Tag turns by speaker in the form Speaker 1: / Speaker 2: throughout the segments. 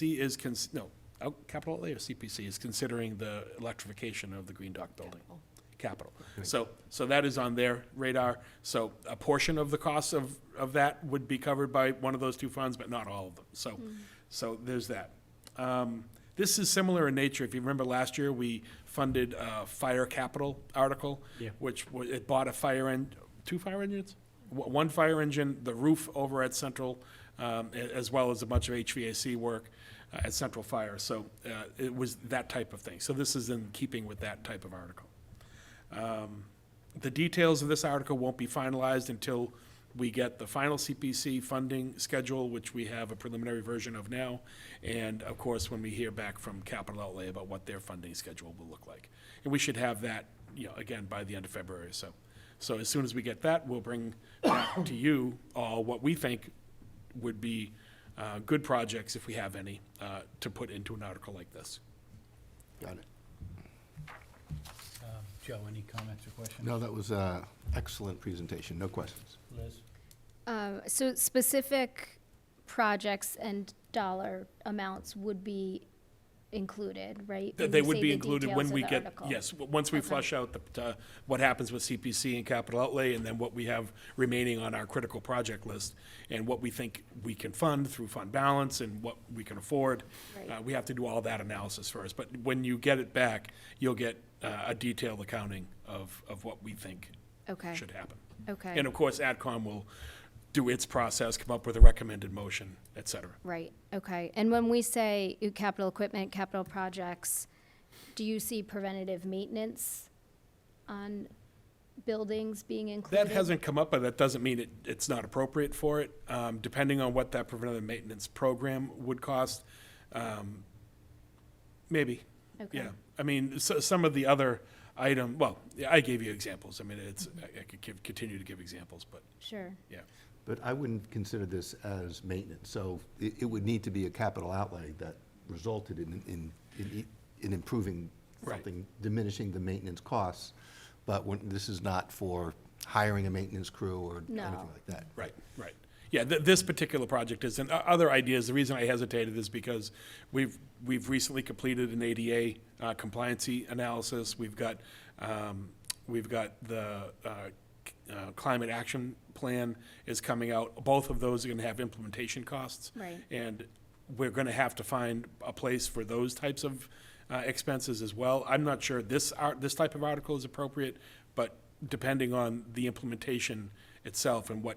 Speaker 1: C is, cons- no, oh, capital A or CPC is considering the electrification of the Green Dock building. Capital. So, so that is on their radar. So a portion of the cost of, of that would be covered by one of those two funds, but not all of them. So, so there's that. Um, This is similar in nature. If you remember last year, we funded a fire capital article,
Speaker 2: Yeah.
Speaker 1: which wa- it bought a fire en, two fire engines? One one fire engine, the roof over at Central, um, a- as well as a bunch of HVAC work uh, at Central Fire. So uh, it was that type of thing. So this is in keeping with that type of article. The details of this article won't be finalized until we get the final CPC funding schedule, which we have a preliminary version of now, and of course, when we hear back from Capital Outlay about what their funding schedule will look like. And we should have that, you know, again, by the end of February, so. So as soon as we get that, we'll bring back to you all what we think would be uh, good projects, if we have any, uh, to put into an article like this.
Speaker 3: Got it.
Speaker 2: Um, Joe, any comments or questions?
Speaker 3: No, that was an excellent presentation, no questions.
Speaker 2: Liz?
Speaker 4: Um, So specific projects and dollar amounts would be included, right?
Speaker 1: Th-
Speaker 4: when
Speaker 1: They
Speaker 4: you
Speaker 1: would
Speaker 4: say
Speaker 1: be
Speaker 4: the
Speaker 1: included
Speaker 4: details
Speaker 1: when
Speaker 4: of
Speaker 1: we
Speaker 4: the
Speaker 1: get,
Speaker 4: article? Uh-huh.
Speaker 1: yes, w- once we flush out the, uh, what happens with CPC and capital outlay, and then what we have remaining on our critical project list, and what we think we can fund through fund balance and what we can afford.
Speaker 4: Right.
Speaker 1: Uh, We have to do all that analysis first, but when you get it back, you'll get uh, a detailed accounting of, of what we think
Speaker 4: Okay,
Speaker 1: should happen.
Speaker 4: okay,
Speaker 1: And of course, AdCom will do its process, come up with a recommended motion, et cetera.
Speaker 4: right, okay. And when we say uh, capital equipment, capital projects, do you see preventative maintenance on buildings being included?
Speaker 1: That hasn't come up, but that doesn't mean it, it's not appropriate for it. Um, depending on what that preventative maintenance program would cost, um, maybe.
Speaker 4: Okay.
Speaker 1: Yeah, I mean, so, some of the other item, well, yeah, I gave you examples. I mean, it's, I I could give, continue to give examples, but,
Speaker 4: Sure,
Speaker 1: yeah.
Speaker 3: But I wouldn't consider this as maintenance, so it, it would need to be a capital outlay that resulted in, in, in e- in improving
Speaker 1: Right.
Speaker 3: something, diminishing the maintenance costs, but when, this is not for hiring a maintenance crew or anything
Speaker 4: No.
Speaker 3: like that.
Speaker 1: Right, right. Yeah, th- this particular project is, and o- other ideas, the reason I hesitated is because we've, we've recently completed an ADA uh, compliancy analysis. We've got, um, we've got the uh, c- uh, climate action plan is coming out. Both of those are gonna have implementation costs.
Speaker 4: Right.
Speaker 1: And we're gonna have to find a place for those types of uh, expenses as well. I'm not sure this, art- this type of article is appropriate, but depending on the implementation itself and what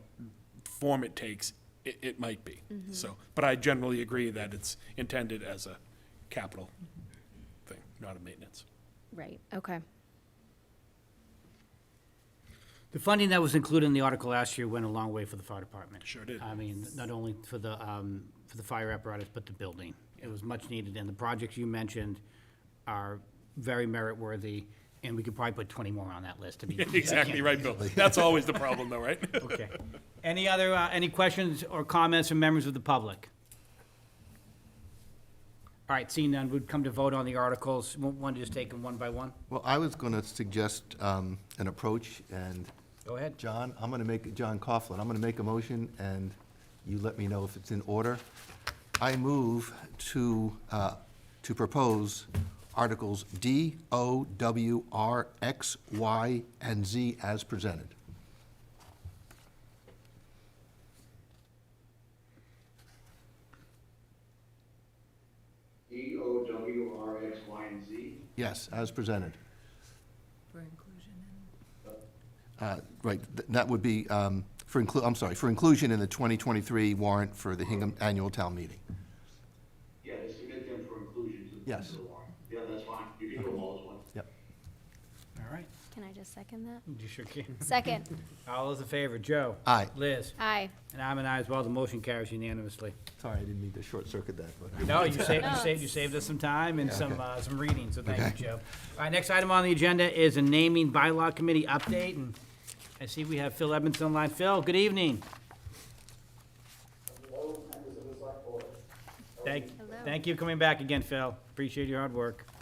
Speaker 1: form it takes, it, it might be. So, but I generally agree that it's intended as a capital thing, not a maintenance.
Speaker 4: right, okay,
Speaker 2: The funding that was included in the article last year went a long way for the fire department.
Speaker 1: Sure did.
Speaker 2: I mean, not only for the, um, for the fire apparatus, but the building. It was much needed, and the projects you mentioned are very merit-worthy, and we could probably put twenty more on that list to be.
Speaker 1: Exactly right, Bill. That's always the problem though, right?
Speaker 2: Okay. Any other, uh, any questions or comments from members of the public? All right, seeing none, we'd come to vote on the articles. Want to just take them one by one?
Speaker 3: Well, I was gonna suggest, um, an approach, and
Speaker 2: Go ahead.
Speaker 3: John, I'm gonna make, John Coughlin, I'm gonna make a motion, and you let me know if it's in order. I move to, uh, to propose Articles D, O, W, R, X, Y, and Z as presented.
Speaker 5: D E O W R X, Y, and Z.
Speaker 3: Yes, as presented.
Speaker 6: For inclusion in,
Speaker 3: Uh, Right, th- that would be, um, for inclu, I'm sorry, for inclusion in the 2023 warrant for the Hingham Annual Town Meeting.
Speaker 5: Yeah, to submit them for inclusion to the.
Speaker 3: Yes.
Speaker 5: to the warrant. Yeah, that's fine. You can do all as one.
Speaker 3: Yep.
Speaker 2: All right,
Speaker 4: can I just second that?
Speaker 2: you sure can.
Speaker 4: Second,
Speaker 2: All those in favor, Joe?
Speaker 3: Aye.
Speaker 2: Liz?
Speaker 4: aye,
Speaker 2: And I'm an aye as well, the motion carries unanimously.
Speaker 3: Sorry, I didn't mean to short-circuit that, but.
Speaker 2: No, you saved, you saved, you saved us some time and some, uh, some reading, so thank you, Joe. All right, next item on the agenda is a naming bylaw committee update, and I see we have Phil Edmonds online. Phil, good evening. Thank,
Speaker 4: Hello.
Speaker 2: thank you for coming back again, Phil. Appreciate your hard work.